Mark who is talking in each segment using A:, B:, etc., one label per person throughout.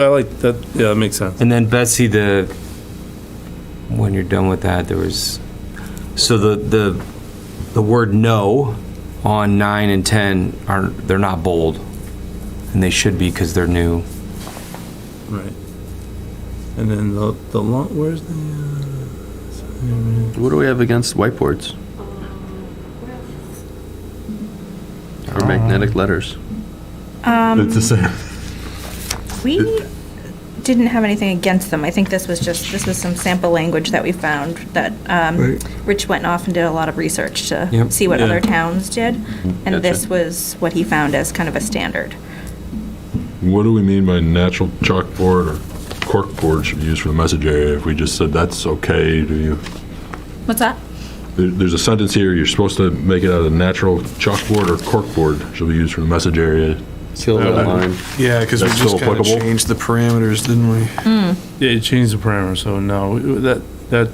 A: I like that. Yeah, that makes sense.
B: And then Betsy, the, when you're done with that, there was, so the, the, the word no on nine and 10 are, they're not bold. And they should be because they're new.
A: Right. And then the the long. Where's the? uh?
C: What do we have against whiteboards?
D: Oh.
C: Or magnetic letters?
E: It's the same.
F: We didn't have anything against them. I think this was just, this was some sample language that we found that um, Rich went off and did a lot of research to
B: Yep.
F: see what
A: Yeah.
F: other towns did.
C: Gotcha.
F: And this was what he found as kind of a standard.
E: What do we mean by natural chalkboard or corkboard should be used for the message area if we just said that's okay? Do you?
F: What's that?
E: There, there's a sentence here, you're supposed to make it out of natural chalkboard or corkboard should be used for the message area.
C: Seal that line.
D: Yeah, because we
E: That's
D: just
E: still
D: kind of
E: applicable?
D: changed the parameters, didn't we?
A: Yeah, you changed the parameter. So no, we- that that.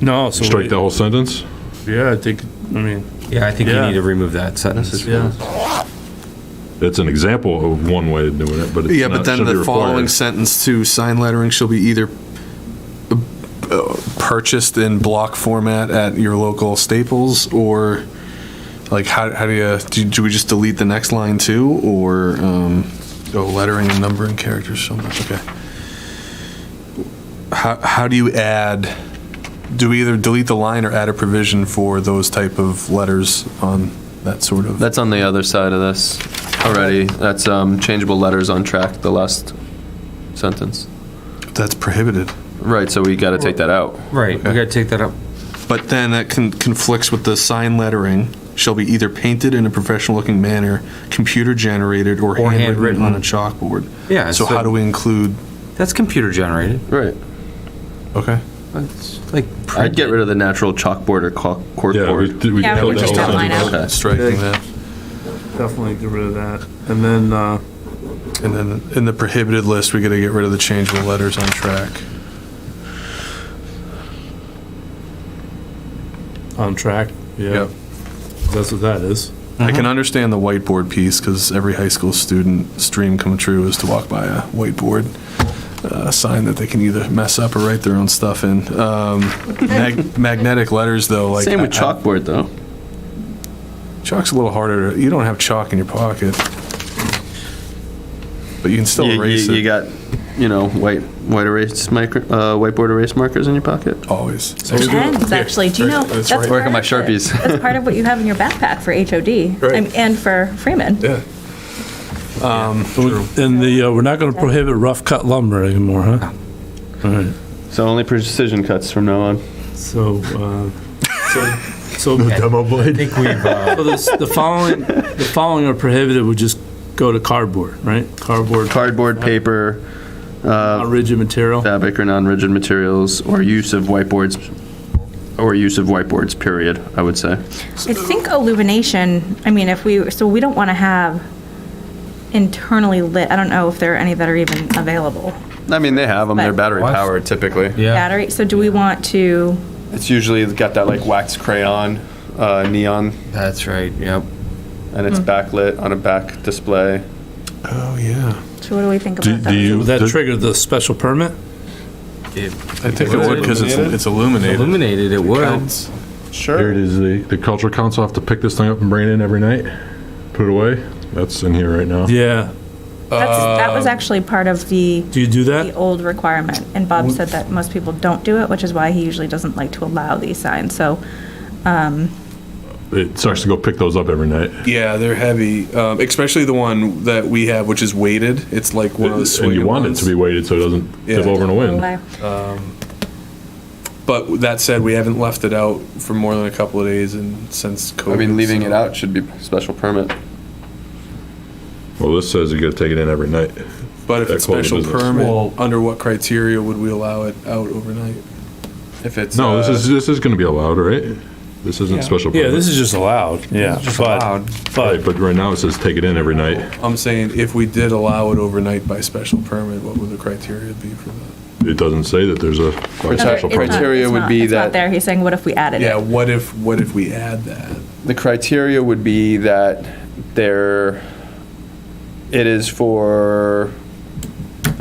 A: No. So
E: Strike
A: we-
E: the whole sentence?
A: Yeah, I think. I mean.
B: Yeah, I think you
A: Yeah.
B: need to remove that sentence.
A: Yeah.
E: That's an example of one way of doing it, but it's
D: Yeah, but
E: not,
D: then
E: should be
D: the following
E: required.
D: sentence to sign lettering shall be either uh, uh, purchased in block format at your local Staples or like how, how do you, do, do we just delete the next line too? Or, um, oh, lettering and numbering characters so much, okay. How, how do you add, do we either delete the line or add a provision for those type of letters on that sort of?
C: That's on the other side of this already. That's um, changeable letters on track, the last sentence.
D: That's prohibited.
C: Right, so we got to take that out.
B: Right, we gotta take that up.
D: But then that con- conflicts with the sign lettering shall be either painted in a professional-looking manner, computer-generated, or
B: Or
D: handwritten
B: handwritten.
D: on a chalkboard.
B: Yeah,
D: So
B: so-
D: how do we include,
B: That's computer generated.
C: Right.
D: okay?
B: It's like.
C: I'd get rid of the natural chalkboard or cork-
E: Yeah, we,
C: corkboard.
E: did- we
F: Yeah, we
E: held
F: just
E: that
F: got
E: whole
F: line
E: sentence.
F: out.
C: Okay.
D: Striking that.
A: Definitely get rid of that. And then. uh
D: And then in the prohibited list, we gotta get rid of the changeable letters on track.
A: On track. Yeah.
D: Yep.
A: That's what that is.
D: I
C: Mm-hmm.
D: can understand the whiteboard piece, because every high school student's dream come true is to walk by a whiteboard uh, sign that they can either mess up or write their own stuff in. Um, mag- Magnetic letters, though, like.
C: Same with
D: I- I-
C: chalkboard, though.
D: Chalk's a little harder. to- You don't have chalk in your pocket, but you can still
C: You,
D: erase
C: you, you
D: it
C: got, you know, white white erase micro, uh, whiteboard erase markers in your pocket.
D: always.
F: Pens, actually. Do you know?
D: That's
F: that's
D: right.
C: Work on
F: part
C: my
F: of it.
C: Sharpies.
F: That's part of what you have in your backpack for HOD
D: Right.
F: I'm- and for Freeman.
D: Yeah.
A: And the uh, we're not going to prohibit rough cut lumber anymore, huh? All right.
C: So only precision cuts from now on.
A: So. Uh, so. So.
E: Demo
B: I
E: blade.
B: think we've, uh,
A: So this, the following, the following are prohibited would just go to cardboard, right? Cardboard,
C: Cardboard, paper, uh,
A: not rigid material.
C: fabric or non-rigid materials, or use of whiteboards, or use of whiteboards. Period. I would say.
F: I think illumination, I mean, if we, so we don't want to have internally lit, I don't know if there are any that are even available.
C: I mean, they have them. They're
F: But-
C: battery
B: What?
C: powered typically.
B: yeah,
F: Battery, so do we want to,
C: It's usually got that like wax crayon, uh, neon,
B: that's right, yep.
C: and it's backlit on a back display.
D: Oh yeah.
F: so what do we think
E: Do-
F: about
E: do you-
F: that?
A: Would that
E: The-
A: trigger the special permit?
D: I think it would because it's it's illuminated.
B: Illuminated, it would.
D: Pens.
E: Here it
C: Sure.
E: is, the, the cultural council have to pick this thing up and bring it in every night, put it away. That's in here right now.
A: Yeah.
F: That's, that was actually part of the,
A: Do you do
F: the
A: that?
F: old requirement, and Bob said that most people don't do it, which is why he usually doesn't like to allow these signs, so,
E: It starts to go pick those up every night.
D: Yeah, they're heavy, um, especially the one that we have, which is weighted. It's like one of the
E: And
D: swinging
E: you want it
D: ones.
E: to be weighted so it doesn't tip
D: Yeah.
E: over in a wind.
D: But that said, we haven't left it out for more than a couple of days and since COVID.
C: I mean, leaving it
D: so-
C: out should be special permit.
E: Well, this says you gotta take it in every night.
D: But if
E: That
D: it's
E: call it
D: special
E: business.
D: permit,
A: Well-
D: under what criteria would we allow it out overnight? If it's
E: No, this
D: uh,
E: is, this is gonna be allowed, right? This isn't special.
A: Yeah,
E: permit.
A: this is just allowed, yeah.
B: Just
A: but-
B: allowed.
E: Right,
A: But,
E: But right now it says take it in every night.
D: I'm saying if we did allow it overnight by special permit, what would the criteria be for that?
E: It doesn't say that there's a by
C: It's not-
E: special
C: it's not-
E: permit.
C: criteria would be
F: It's not
C: that-
F: there, he's saying, what if we added
D: Yeah,
F: it?
D: what if, what if we add that?
C: The criteria would be that there, it is for